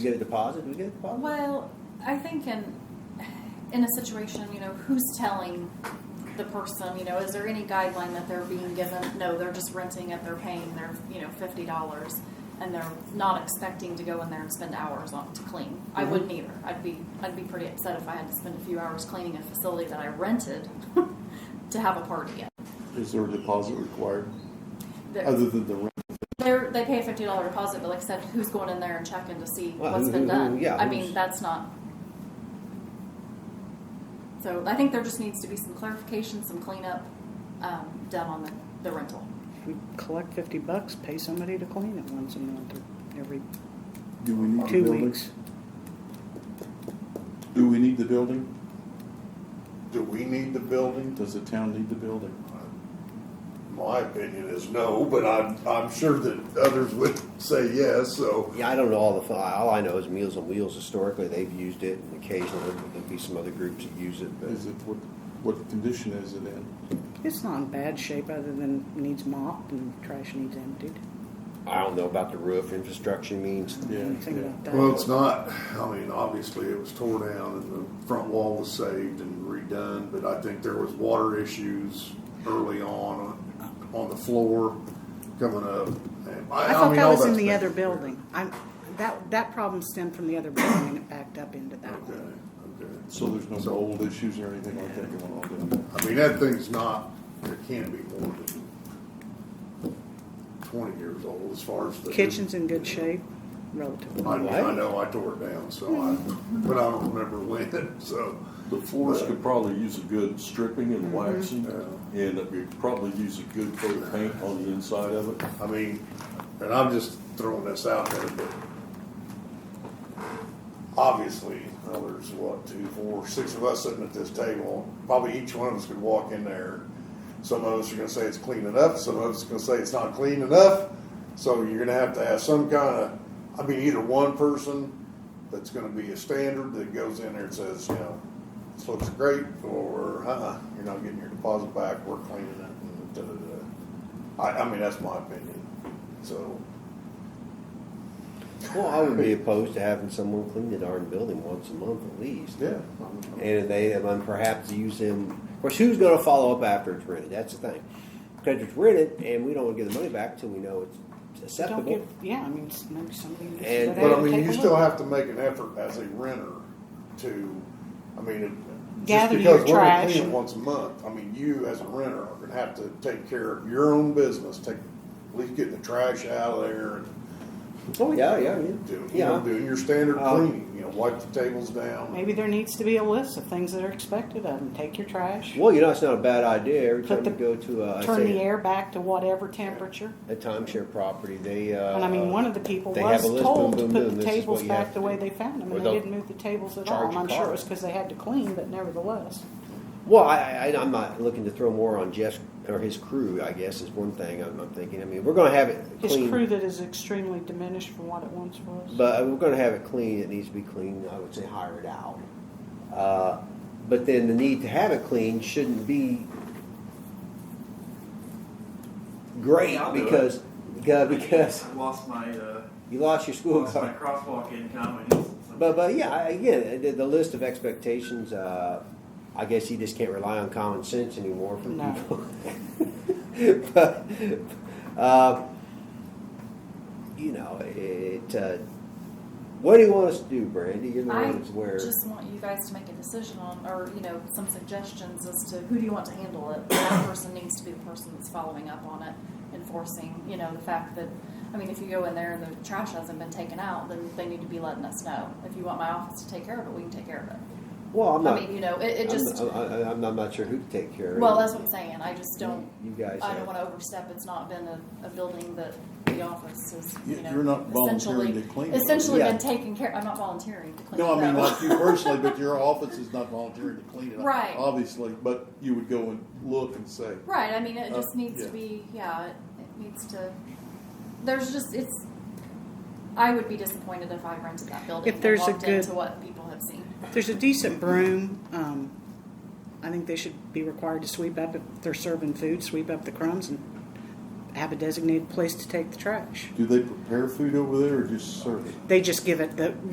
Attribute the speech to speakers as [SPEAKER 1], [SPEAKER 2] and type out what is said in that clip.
[SPEAKER 1] We get a deposit? Do we get a deposit?
[SPEAKER 2] Well, I think in in a situation, you know, who's telling the person, you know, is there any guideline that they're being given? No, they're just renting it, they're paying their, you know, fifty dollars and they're not expecting to go in there and spend hours on to clean. I
[SPEAKER 1] Mhm.
[SPEAKER 2] wouldn't either. I'd be I'd be pretty upset if I had to spend a few hours cleaning a facility that I rented to have a party at.
[SPEAKER 3] Is there a deposit required
[SPEAKER 2] There-
[SPEAKER 3] other than the rent?
[SPEAKER 2] They're, they pay a fifty dollar deposit, but like I said, who's going in there and checking to see
[SPEAKER 1] Well,
[SPEAKER 2] what's
[SPEAKER 1] who-
[SPEAKER 2] been
[SPEAKER 1] who- who-
[SPEAKER 2] done?
[SPEAKER 1] yeah,
[SPEAKER 2] I mean,
[SPEAKER 1] who's-
[SPEAKER 2] that's not. So I think there just needs to be some clarification, some cleanup um, done on the, the rental.
[SPEAKER 4] We collect fifty bucks, pay somebody to clean it once a month or every
[SPEAKER 3] Do we need the
[SPEAKER 4] two
[SPEAKER 3] building?
[SPEAKER 4] weeks.
[SPEAKER 3] Do we need the building?
[SPEAKER 5] Do we need the building?
[SPEAKER 3] Does the town need the building?
[SPEAKER 5] My opinion is no, but I'm, I'm sure that others would say yes, so.
[SPEAKER 1] Yeah, I don't know all the, all I know is Meals on Wheels historically, they've used it and occasionally there'll be some other groups that use it, but.
[SPEAKER 3] Is it, what, what condition is it in?
[SPEAKER 4] It's not in bad shape other than needs mopped and trash needs emptied.
[SPEAKER 1] I don't know about the roof infrastructure means.
[SPEAKER 3] Yeah,
[SPEAKER 4] Anything
[SPEAKER 3] yeah.
[SPEAKER 4] about that.
[SPEAKER 5] Well, it's not, I mean, obviously it was tore down and the front wall was saved and redone, but I think there was water issues early on, uh, on the floor coming up. And
[SPEAKER 4] I thought
[SPEAKER 5] mean,
[SPEAKER 4] that
[SPEAKER 5] all
[SPEAKER 4] was in
[SPEAKER 5] that's
[SPEAKER 4] the
[SPEAKER 5] been-
[SPEAKER 4] other building. I'm, that, that problem stemmed from the other building and it backed up into that
[SPEAKER 5] Okay,
[SPEAKER 4] one.
[SPEAKER 5] okay.
[SPEAKER 3] So there's no
[SPEAKER 5] So-
[SPEAKER 3] mold issues or anything like that going on down
[SPEAKER 5] I mean, that thing's not, it can't be more than twenty years old as far as the.
[SPEAKER 4] Kitchen's in good shape, relatively.
[SPEAKER 5] I, I
[SPEAKER 1] What?
[SPEAKER 5] know, I tore it down, so I, but I don't remember when, so.
[SPEAKER 6] The floors could probably use a good stripping and waxing,
[SPEAKER 5] Yeah.
[SPEAKER 6] and it could probably use a good coat of paint on the inside of it.
[SPEAKER 5] I mean, and I'm just throwing this out there, but obviously, well, there's what, two, four, six of us sitting at this table. Probably each one of us could walk in there. Some of us are gonna say it's clean enough, some of us are gonna say it's not clean enough. So you're gonna have to have some kind of, I mean, either one person that's gonna be a standard that goes in there and says, you know, this looks great, or, uh-uh, you're not getting your deposit back, we're cleaning it, and da-da-da. I, I mean, that's my opinion, so.
[SPEAKER 1] Well, I would be opposed to having someone clean the darn building once a month at least.
[SPEAKER 5] Yeah.
[SPEAKER 1] And if they, and perhaps use them, of course, who's gonna follow up after it's rented? That's the thing. Because it's rented and we don't give the money back until we know it's
[SPEAKER 4] Don't give,
[SPEAKER 1] acceptable.
[SPEAKER 4] yeah, I mean, it's maybe something.
[SPEAKER 1] And-
[SPEAKER 4] that
[SPEAKER 5] But I
[SPEAKER 4] I'd take
[SPEAKER 5] mean,
[SPEAKER 4] a
[SPEAKER 5] you still
[SPEAKER 4] look.
[SPEAKER 5] have to make an effort as a renter to, I mean, it.
[SPEAKER 4] Gather
[SPEAKER 5] just because
[SPEAKER 4] your
[SPEAKER 5] we're gonna
[SPEAKER 4] trash
[SPEAKER 5] clean it
[SPEAKER 4] and-
[SPEAKER 5] Once a month, I mean, you as a renter are gonna have to take care of your own business, take, at least getting the trash out of there and
[SPEAKER 1] Oh, yeah, yeah, yeah.
[SPEAKER 5] doing, you know,
[SPEAKER 1] Yeah,
[SPEAKER 5] doing your standard
[SPEAKER 1] Um,
[SPEAKER 5] cleaning, you know, wipe the tables down.
[SPEAKER 4] Maybe there needs to be a list of things that are expected of them. Take your trash,
[SPEAKER 1] well, you know, it's not a bad idea. Every time
[SPEAKER 4] Put
[SPEAKER 1] you
[SPEAKER 4] the-
[SPEAKER 1] go to a,
[SPEAKER 4] turn
[SPEAKER 1] say,
[SPEAKER 4] the air back to whatever temperature.
[SPEAKER 1] a timeshare property, they, uh.
[SPEAKER 4] And I mean, one of the people
[SPEAKER 1] they
[SPEAKER 4] was
[SPEAKER 1] have a list,
[SPEAKER 4] told
[SPEAKER 1] boom, boom,
[SPEAKER 4] to
[SPEAKER 1] boom,
[SPEAKER 4] put the
[SPEAKER 1] this is
[SPEAKER 4] tables
[SPEAKER 1] what you have
[SPEAKER 4] back the
[SPEAKER 1] to
[SPEAKER 4] way
[SPEAKER 1] do.
[SPEAKER 4] they found them,
[SPEAKER 1] Or
[SPEAKER 4] and
[SPEAKER 1] they'll
[SPEAKER 4] they didn't move the tables at
[SPEAKER 1] charge
[SPEAKER 4] all.
[SPEAKER 1] your
[SPEAKER 4] I'm sure
[SPEAKER 1] car.
[SPEAKER 4] it was because they had to clean, but nevertheless.
[SPEAKER 1] Well, I, I, I'm not looking to throw more on Jeff or his crew. I guess is one thing I'm, I'm thinking. I mean, we're going to have it
[SPEAKER 4] His
[SPEAKER 1] clean,
[SPEAKER 4] crew that is extremely diminished from what it once was.
[SPEAKER 1] but we're going to have it clean. It needs to be clean. I would say hire it out. Uh, but then the need to have it clean shouldn't be great
[SPEAKER 7] Yeah, I'll do it.
[SPEAKER 1] because because because
[SPEAKER 7] I lost my uh,
[SPEAKER 1] you lost your school
[SPEAKER 7] lost
[SPEAKER 1] card.
[SPEAKER 7] my crosswalk income and it's-
[SPEAKER 1] But but yeah, I- again, the, the list of expectations. Uh, I guess you just can't rely on common sense anymore from
[SPEAKER 4] No.
[SPEAKER 1] people. but uh, you know, it. Uh, what do you want us to do, Brandy? You're the
[SPEAKER 2] I
[SPEAKER 1] one that's where.
[SPEAKER 2] just want you guys to make a decision on, or you know, some suggestions as to who do you want to handle it. That person needs to be the person that's following up on it, enforcing, you know, the fact that, I mean, if you go in there and the trash hasn't been taken out, then they need to be letting us know. If you want my office to take care of it, we can take care of it.
[SPEAKER 1] well, I'm not.
[SPEAKER 2] I mean, you know, it, it just,
[SPEAKER 1] I'm, I, I- I'm, I'm not sure who to take care of.
[SPEAKER 2] well, that's what I'm saying. I just don't,
[SPEAKER 1] You guys.
[SPEAKER 2] I
[SPEAKER 1] have-
[SPEAKER 2] don't want to overstep. It's not been a, a building that the office is, you
[SPEAKER 3] You-
[SPEAKER 2] know,
[SPEAKER 3] you're not volunteering
[SPEAKER 2] essentially,
[SPEAKER 3] to clean it, are you?
[SPEAKER 2] essentially
[SPEAKER 1] Yeah.
[SPEAKER 2] been taking care, I'm not volunteering to
[SPEAKER 3] there?
[SPEAKER 2] clean it.
[SPEAKER 3] No, I mean,
[SPEAKER 2] though.
[SPEAKER 3] like you personally, but your office is not volunteering to clean it up.
[SPEAKER 2] Right.
[SPEAKER 3] Obviously, but you would go and look and say,
[SPEAKER 2] Right, I mean, it
[SPEAKER 3] Uh,
[SPEAKER 2] just needs to
[SPEAKER 3] yeah.
[SPEAKER 2] be, yeah, it, it needs to, there's just, it's, I would be disappointed if I rented that building
[SPEAKER 4] If
[SPEAKER 2] and
[SPEAKER 4] there's a
[SPEAKER 2] walked
[SPEAKER 4] good-
[SPEAKER 2] into what people have seen.
[SPEAKER 4] There's a decent broom. Um, I think they should be required to sweep up if they're serving food, sweep up the crumbs, and have a designated place to take the trash.
[SPEAKER 3] do they prepare food over there or just serve it?
[SPEAKER 4] They just give it the